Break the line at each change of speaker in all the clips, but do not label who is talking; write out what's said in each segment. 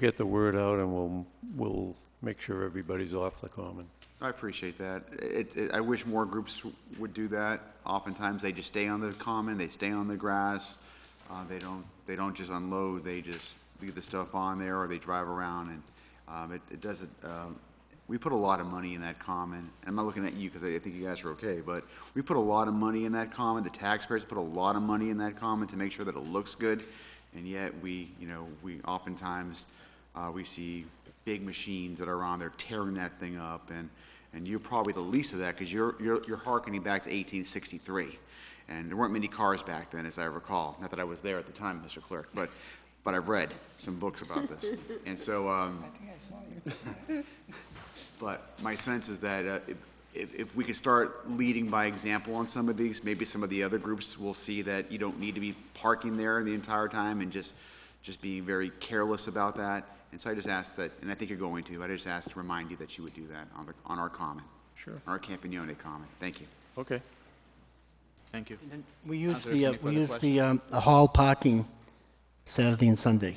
get the word out and we'll, we'll make sure everybody's off the common.
I appreciate that. It, it, I wish more groups would do that. Oftentimes, they just stay on the common, they stay on the grass. Uh, they don't, they don't just unload, they just leave the stuff on there or they drive around and, um, it, it doesn't, um, we put a lot of money in that common. I'm not looking at you because I, I think you guys are okay, but we put a lot of money in that common. The taxpayers put a lot of money in that common to make sure that it looks good. And yet we, you know, we oftentimes, uh, we see big machines that are on there tearing that thing up, and, and you're probably the least of that, because you're, you're, you're hearkening back to 1863, and there weren't many cars back then, as I recall, not that I was there at the time, Mr. Clerk, but, but I've read some books about this, and so, um, but my sense is that uh, if- if, if we could start leading by example on some of these, maybe some of the other groups will see that you don't need to be parking there the entire time and just, just being very careless about that. And so I just ask that, and I think you're going to, I just ask to remind you that you would do that on the, on our common,
Sure.
on our Campagnone common. Thank you.
Okay.
Thank you.
And We use
there
the,
any
uh, we
further
use the um, the hall parking Saturday and Sunday.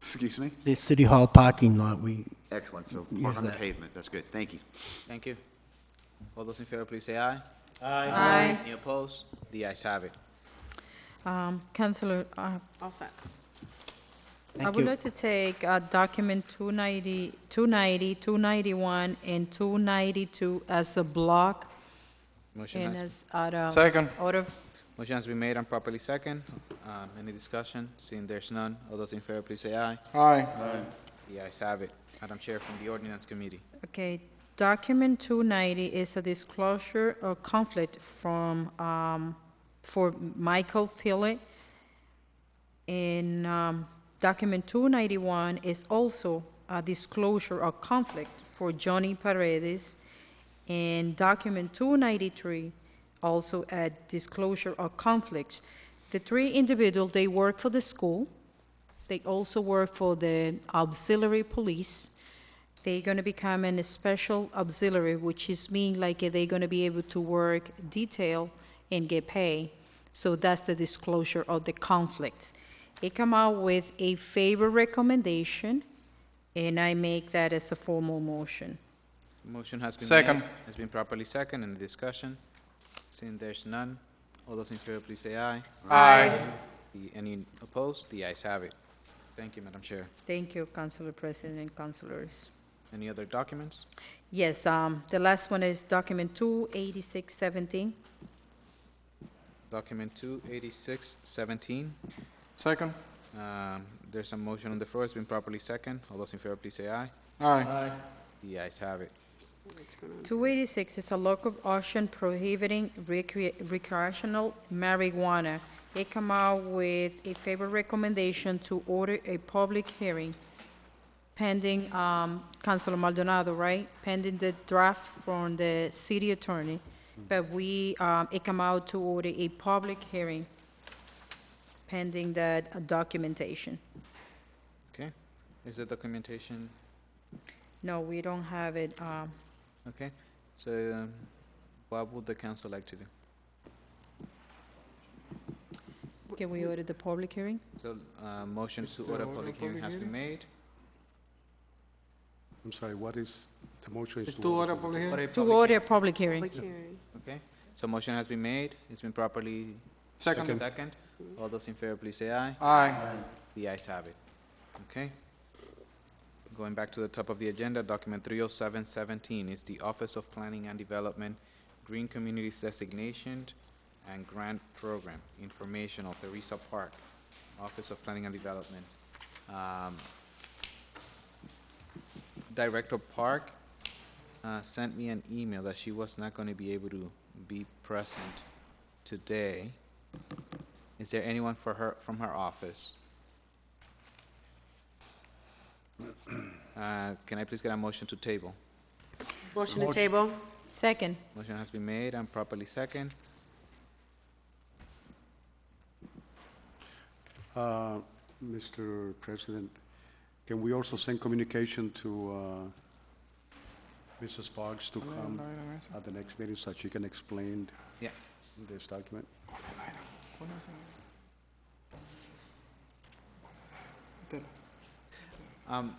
Excuse me?
The city hall parking lot, we,
Excellent. So
Use
park on the
that.
pavement. That's good. Thank you.
Thank you. All those in favor, please say aye.
Aye.
Any opposed? The ayes have it.
Um, Counselor, uh,
All set.
I
thank
would
you.
like to take uh, document 290, 290, 291, and 292 as a block
Motion
and
has,
as out of...
Second.
Out of,
motion has been made and properly second. Um, Any discussion? Seeing there's none, all those in favor, please say aye.
Aye.
The ayes have it. Madam Chair, from the Ordinance Committee.
okay, document 290 is a disclosure of conflict from, um, for Michael Philip. And um, document 291 is also a disclosure of conflict for Johnny Paredes. And document 293 also a disclosure of conflicts. The three individuals, they work for the school. They also work for the auxiliary police. They're going to become a special auxiliary, which is mean like they're going to be able to work detail and get pay. So that's the disclosure of the conflicts. It come out with a favor recommendation, and I make that as a formal motion.
Motion has been made.
Second.
Has been properly second. Any discussion? Seeing there's none, all those in favor, please say aye.
Aye.
The- Any opposed? The ayes have it. Thank you, Madam Chair.
Thank you, Councilor President and Councilors.
Any other documents?
Yes, um, the last one is document 28617.
Document 28617.
Second.
Um, There's a motion on the floor, it's been properly second. All those in favor, please say aye.
Aye.
The ayes have it.
286 is a local option prohibiting recre- recreational marijuana. They come out with a favor recommendation to order a public hearing pending, um, Councilor Maldonado, right? Pending the draft from the city attorney. But we, um, it come out to order a public hearing pending that uh, documentation.
Okay? Is the documentation,
No, we don't have it, um,
okay? So um, what would the council like to do?
can we order the public hearing?
So uh, motion to order public hearing has been made.
I'm sorry, what is, the motion is
It's
to...
two order public hearing?
To order a public hearing.
Public hearing.
Okay? So motion has been made, it's been properly
Second.
second. All those in favor, please say aye.
Aye.
The ayes have it. Okay? Going back to the top of the agenda, document 30717 is the Office of Planning and Development Green Communities Designation and Grant Program, informational, Theresa Park, Office of Planning and Development. Um, Director Park uh, sent me an email that she was not going to be able to be present today. Is there anyone for her, from her office? Uh, Can I please get a motion to table?
Motion to table?
Second.
Motion has been made and properly second.
Uh, Mr. President, can we also send communication to uh, Mrs. Parks to come at the next meeting so that she can explain
Yeah.
this document?
Um,